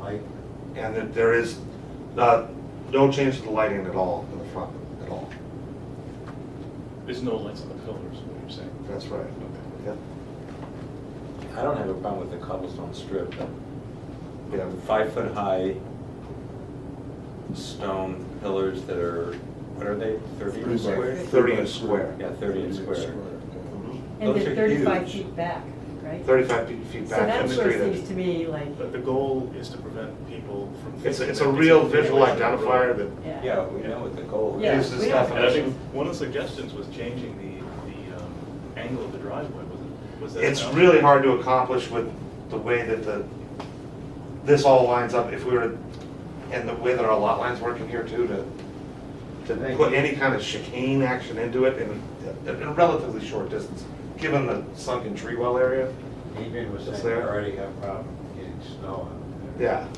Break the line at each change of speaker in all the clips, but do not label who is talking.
light?
And that there is not, no change to the lighting at all in the front at all.
There's no lights on the pillars, is what you're saying.
That's right. Yep.
I don't have a problem with the cobblestone strip,
Yeah,
but five-foot-high stone pillars that are, what are they, thirty
Thirty by
inch square?
thirty inch square.
Yeah, thirty inch square.
And
Those
they're
are
thirty-five
huge.
feet back, right?
Thirty-five feet- feet
So
back
that
from the
sort
street
of seems
edge.
to me like,
But the goal is to prevent people from.
It's, a-
thinking
it's a
that
real
it's a-
visual identifier that
yeah.
Yeah, we know what the goal
Yeah,
is.
gives
we
this
don't-
definition.
And I think one of the suggestions was changing the, the um, angle of the driveway, was it? Was that
It's
enough?
really hard to accomplish with the way that the, this all lines up, if we were, and the way that our lot lines work in here too, to, to put any kind of chicane action into it in a- in a relatively short distance, given the sunken tree well area,
Adrian was
It's
saying
there.
they already have a problem getting snow on there.
yeah.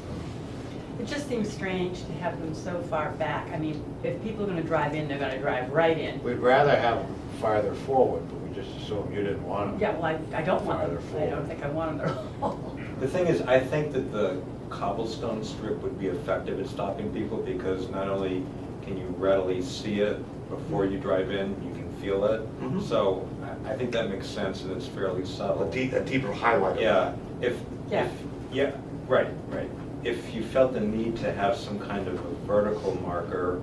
It just seems strange to have them so far back. I mean, if people are gonna drive in, they're gonna drive right in.
We'd rather have them farther forward, but we just assumed you didn't want them.
Yeah, well, I, I don't want
Farther
them, I
forward.
don't think I want them at all.
The thing is, I think that the cobblestone strip would be effective at stopping people because not only can you readily see it before you drive in, you can feel it.
Mhm.
So I- I think that makes sense and it's fairly subtle.
A deep, a deeper highlight. of it.
Yeah, if,
Yeah.
if, yeah, right, right. If you felt the need to have some kind of a vertical marker,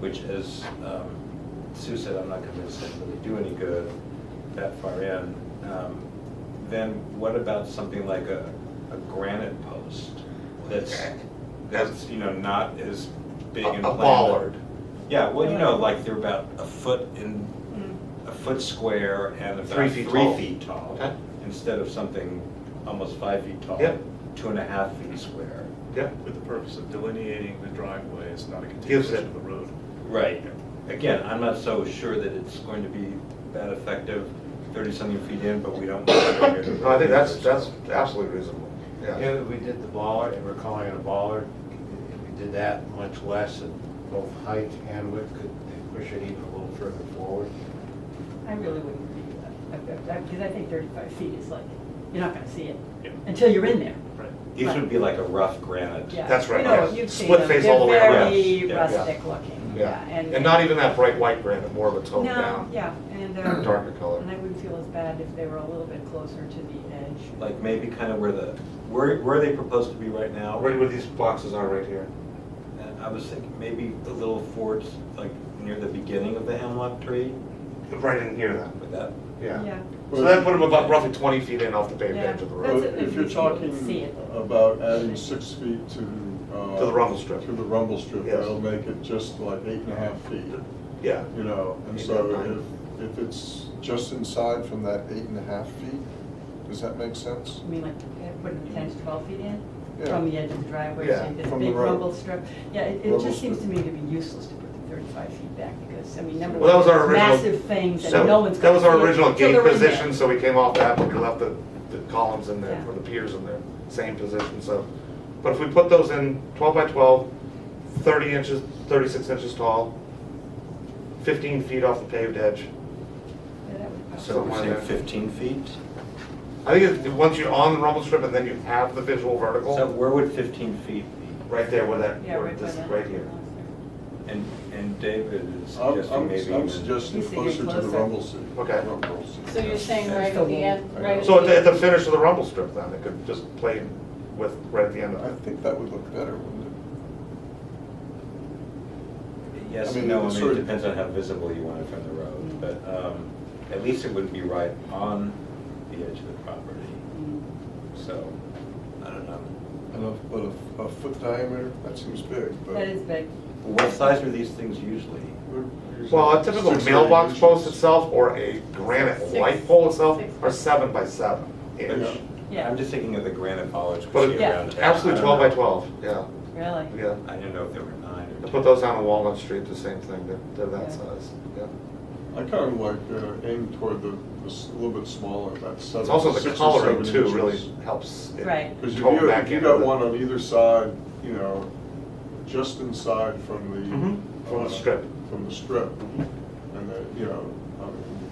which is, um, Sue said, I'm not convinced it really do any good that far in, um, then what about something like a, a granite post that's,
Okay.
that's, you know, not as
A
big and
a
planned?
bollard.
Yeah, well, you know, like they're about a foot in,
Mm,
a foot square and about
Three
three
feet tall.
feet tall.
Okay.
Instead of something almost five feet tall.
Yep.
Two and a half feet square.
Yep.
With the purpose of delineating the driveway, it's not a
Gives it-
continuation of the road.
Right. Again, I'm not so sure that it's going to be that effective, thirty-something feet in, but we don't.
No, I think that's, that's absolutely reasonable, yeah.
Yeah, we did the baller, and we're calling it a baller. If we did that much less, at both height and width, could they push it even a little further forward?
I really wouldn't do that, because I think thirty-five feet is like, you're not gonna see it
Yeah.
until you're in there.
Right.
These would be like a rough granite.
Yeah.
That's right,
You know,
yeah.
you've seen
Split
them.
face all the way
around.
They're
Yeah,
very
yeah.
rustic looking, yeah, and.
And not even that bright white granite, more of a tone
No,
down.
yeah, and they're.
Darker color.
And I wouldn't feel as bad if they were a little bit closer to the edge.
Like maybe kind of where the, where, where they proposed to be right now.
Right where these boxes are right here.
And I was thinking maybe the little forts, like near the beginning of the hemlock tree,
Right in here then,
with that.
yeah. So that put them about roughly twenty feet in off the paved edge of the
That's
road.
it.
If
You
you're
can see
talking
it.
about adding six feet to. uh,
To the rumble strip.
To the rumble strip,
Yes.
that'll make it just like eight and a half feet,
Yeah,
you know, and
Eight
so
and
if, if it's just inside from that eight and a half feet, does that make sense?
I mean, like, eh, putting the ten to twelve feet in
Yeah.
from the edge of the driveway,
Yeah,
so you get a
from the
big
road.
rumble strip. Yeah, it, it
Rumble
just seems to
strip.
me to be useless to put the thirty-five feet back because, I mean, number
Well, that
one,
was our
it's
original-
massive things
So
and no one's.
That was
gonna
our
see it
original
till
gate
they're in there.
position, so we came off that, but we left the, the columns in there,
Yeah.
or the piers in there, same position, so. But if we put those in twelve by 12, 30 inches, thirty-six inches tall, fifteen feet off the paved edge.
Yeah, that would-
So we're
Somewhere
saying
there.
fifteen feet?
I think it- once you're on the rumble strip and then you have the visual
So
Oh.
vertical,
where would 15 feet be?
right there where that,
Yeah,
where
right by
this,
that.
right here.
And, and David is
I'm,
suggesting
I'm,
maybe.
I'm
even-
suggesting
He's
closer
thinking
to the
closer.
rumble strip.
Okay.
Rumble strip.
So you're saying right at the end, right at the.
So at the, at the
end.
finish of the rumble strip then, it could just play with, right at the end of
I
it.
think that would look better, wouldn't it?
Yes,
I mean,
and no,
it's
I mean,
sort
it
of-
depends on how visible you want it from the road, but um, at least it wouldn't be right on the edge of the property,
Mm.
so, I don't know.
And a, but a, a foot diameter, that seems big, but.
That is big.
What size are these things usually?
we're using
Well, a typical
six or eight
mailbox
inches.
post itself or a granite
Six-
light pole itself
six.
are seven by seven
Yeah.
inch.
Yeah,
I'm just thinking of the granite bollards. we
But
see
Yeah.
around town.
absolutely
I
twelve
don't
by
know.
twelve, yeah,
really.
yeah.
I didn't know if there were nine or
I
ten.
put those down on Walnut Street, the same thing, they're, they're that
Yeah.
size, yeah.
I kind of like uh, aim toward the, the s- little bit smaller, that seven,
It's also the
six or
coloring
seven
too really
inches.
helps. it
Right.
Because if
tone
you,
back
if you
into
got
the-
one on either side, you know, just inside from
Mhm.
the.
From the
uh,
strip.
From the strip, and then, you know, I mean,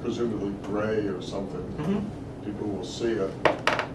presumably gray or something,
Mhm.
people will see it,